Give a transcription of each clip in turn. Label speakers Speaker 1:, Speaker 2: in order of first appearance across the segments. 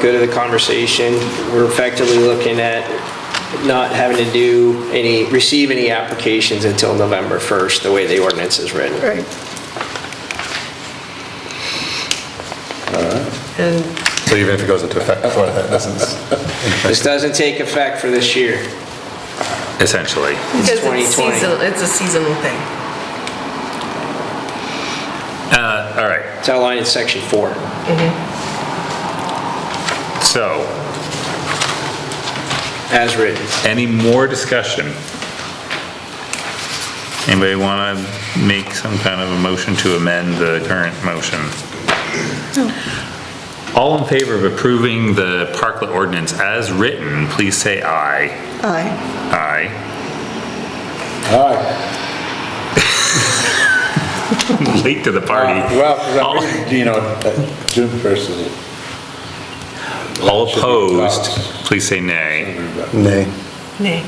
Speaker 1: good of the conversation. We're effectively looking at not having to do any, receive any applications until November 1st, the way the ordinance is written.
Speaker 2: Right. And,
Speaker 3: So even if it goes into effect before that, doesn't...
Speaker 1: This doesn't take effect for this year.
Speaker 4: essentially.
Speaker 2: because it's
Speaker 1: 2020.
Speaker 2: seasonal, it's a seasonal thing.
Speaker 4: All right,
Speaker 1: It's outlined in section four.
Speaker 4: so
Speaker 1: As written.
Speaker 4: any more discussion? Anybody want to make some kind of a motion to amend the current motion? All in favor of approving the parklet ordinance as written, please say aye.
Speaker 5: Aye.
Speaker 4: Aye.
Speaker 3: All right,
Speaker 4: Late to the party.
Speaker 3: Uh, well, 'cause I'm
Speaker 4: All-
Speaker 3: reading, you know, that June 1st is...
Speaker 4: All
Speaker 3: should be
Speaker 4: opposed,
Speaker 3: passed.
Speaker 4: please say nay.
Speaker 3: Nay.
Speaker 2: Nay.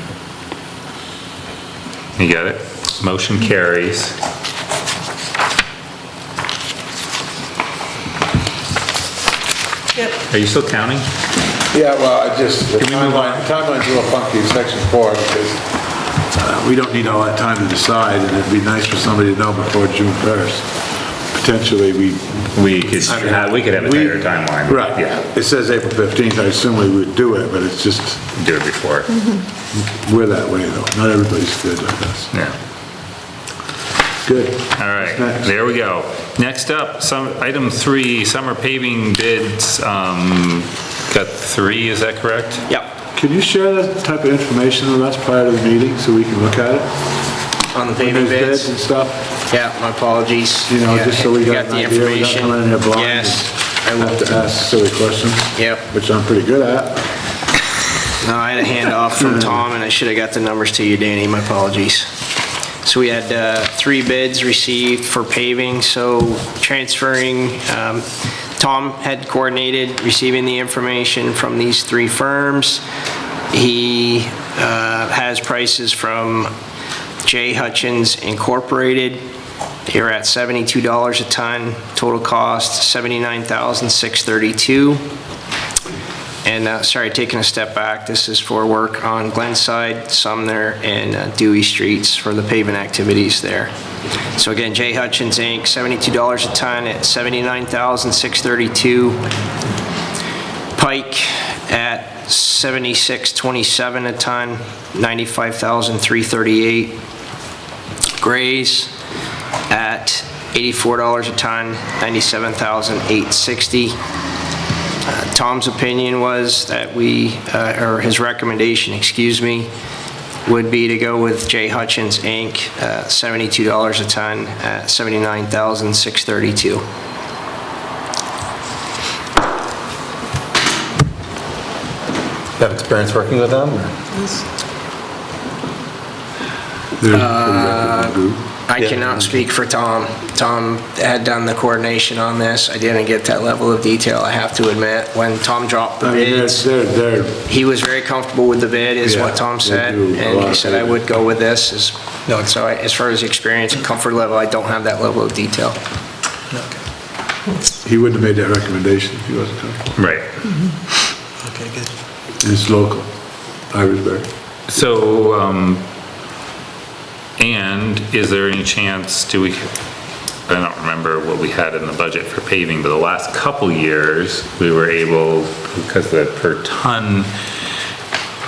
Speaker 4: You got it? Motion carries.
Speaker 2: Yep.
Speaker 4: Are you still counting?
Speaker 3: Yeah, well, I just, the
Speaker 4: Can we move on?
Speaker 3: timeline, timeline's a little funky in section four because uh, we don't need all that time to decide and it'd be nice for somebody to know before June 1st. Potentially, we...
Speaker 4: We could, uh,
Speaker 3: I mean,
Speaker 4: we could have a
Speaker 3: we-
Speaker 4: tighter timeline.
Speaker 3: Right,
Speaker 4: Yeah,
Speaker 3: it says April 15th, I assume we would do it, but it's just,
Speaker 4: do it before,
Speaker 3: Mm-hmm. we're that way though, not everybody's good like us.
Speaker 4: yeah.
Speaker 3: Good.
Speaker 4: All right,
Speaker 3: What's next?
Speaker 4: there we go. Next up, some, item three, summer paving bids, um, got three, is that correct?
Speaker 1: Yep,
Speaker 3: Can you share that type of information with us prior to the meeting so we can look at it?
Speaker 1: on the paving
Speaker 3: Those
Speaker 1: bids.
Speaker 3: And stuff?
Speaker 1: Yeah, my apologies.
Speaker 3: You know,
Speaker 1: Yeah,
Speaker 3: just so we got
Speaker 1: the
Speaker 3: an idea, we don't
Speaker 1: information.
Speaker 3: come in here blind.
Speaker 1: Yes,
Speaker 3: I love to ask silly questions.
Speaker 1: Yep.
Speaker 3: Which I'm pretty good at.
Speaker 1: no, I had a handoff from Tom, and I should have got the numbers to you, Danny, my apologies. So we had uh, three bids received for paving, so transferring, um, Tom had coordinated receiving the information from these three firms. He uh, has prices from J. Hutchins Incorporated. They were at $72 a ton, total cost $79,632. And, uh, sorry, taking a step back, this is for work on Glenside, Sumner, and uh, Dewey Streets for the pavement activities there. So again, J. Hutchins Inc., $72 a ton at $79,632. Pike at $76.27 a ton, $95,338. Gray's at $84 a ton, $97,860. Uh, Tom's opinion was that we, uh, or his recommendation, excuse me, would be to go with J. Hutchins, Inc., uh, $72 a ton, at $79,632.
Speaker 6: Have experience working with them?
Speaker 3: They're a pretty reputable group.
Speaker 1: I cannot speak for Tom. Tom had done the coordination on this. I didn't get that level of detail, I have to admit. When Tom dropped the
Speaker 3: I mean, they're,
Speaker 1: bids,
Speaker 3: they're, they're-
Speaker 1: he was very comfortable with the bid, is
Speaker 3: Yeah,
Speaker 1: what Tom
Speaker 3: they
Speaker 1: said.
Speaker 3: do a
Speaker 1: And
Speaker 3: lot
Speaker 1: he
Speaker 3: of
Speaker 1: said, I
Speaker 3: bidding.
Speaker 1: would go with this, is, so I- as far as experience and comfort level, I don't have that level of detail.
Speaker 3: he wouldn't have made that recommendation if he wasn't coming.
Speaker 4: Right.
Speaker 6: Okay, good.
Speaker 3: It's local, Irisburg.
Speaker 4: So, um, and is there any chance, do we, I don't remember what we had in the budget for paving, but the last couple years, we were able, because the per ton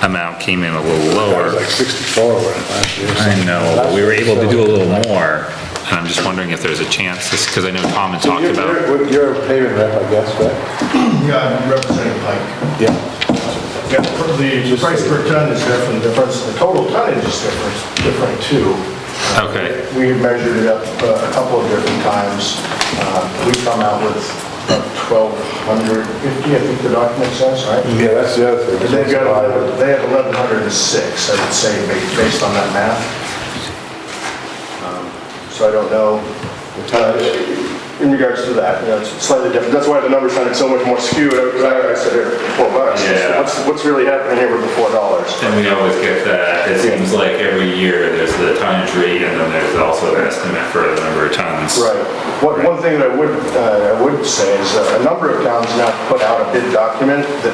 Speaker 4: amount came in a little
Speaker 3: That was
Speaker 4: lower.
Speaker 3: like 64 when last year. or
Speaker 4: I
Speaker 3: something.
Speaker 4: know, but we were able to do a little more, and I'm just wondering if there's a chance, because I know Tom had talked
Speaker 3: You're-
Speaker 4: about,
Speaker 3: You're you're a paving rep, I guess, right?
Speaker 7: Yeah, I'm representing Pike.
Speaker 3: Yeah.
Speaker 7: Yeah, the price per ton is definitely different, the total tonnage is different, different too.
Speaker 4: Okay.
Speaker 7: We measured it up uh, a couple of different times. Uh, We come out with about 1,250, I think the document says, right?
Speaker 3: Yeah, that's the other
Speaker 7: And
Speaker 3: thing.
Speaker 7: they've got, eleven- they have 1,106, I would say, ba- based on that math. Um, So I don't know. uh, In regards to that, you know, it's slightly different. That's why the number sounded so much more skewed. I I said here, four bucks.
Speaker 4: Yeah.
Speaker 7: What's that's what's really happening here with the four dollars.
Speaker 4: And we always get that, it seems like every year, there's the tonnage rate, and then there's also an estimate for the number of tons.
Speaker 7: Right. One, one thing that I would, uh, I would say is that a number of towns now put out a bid document that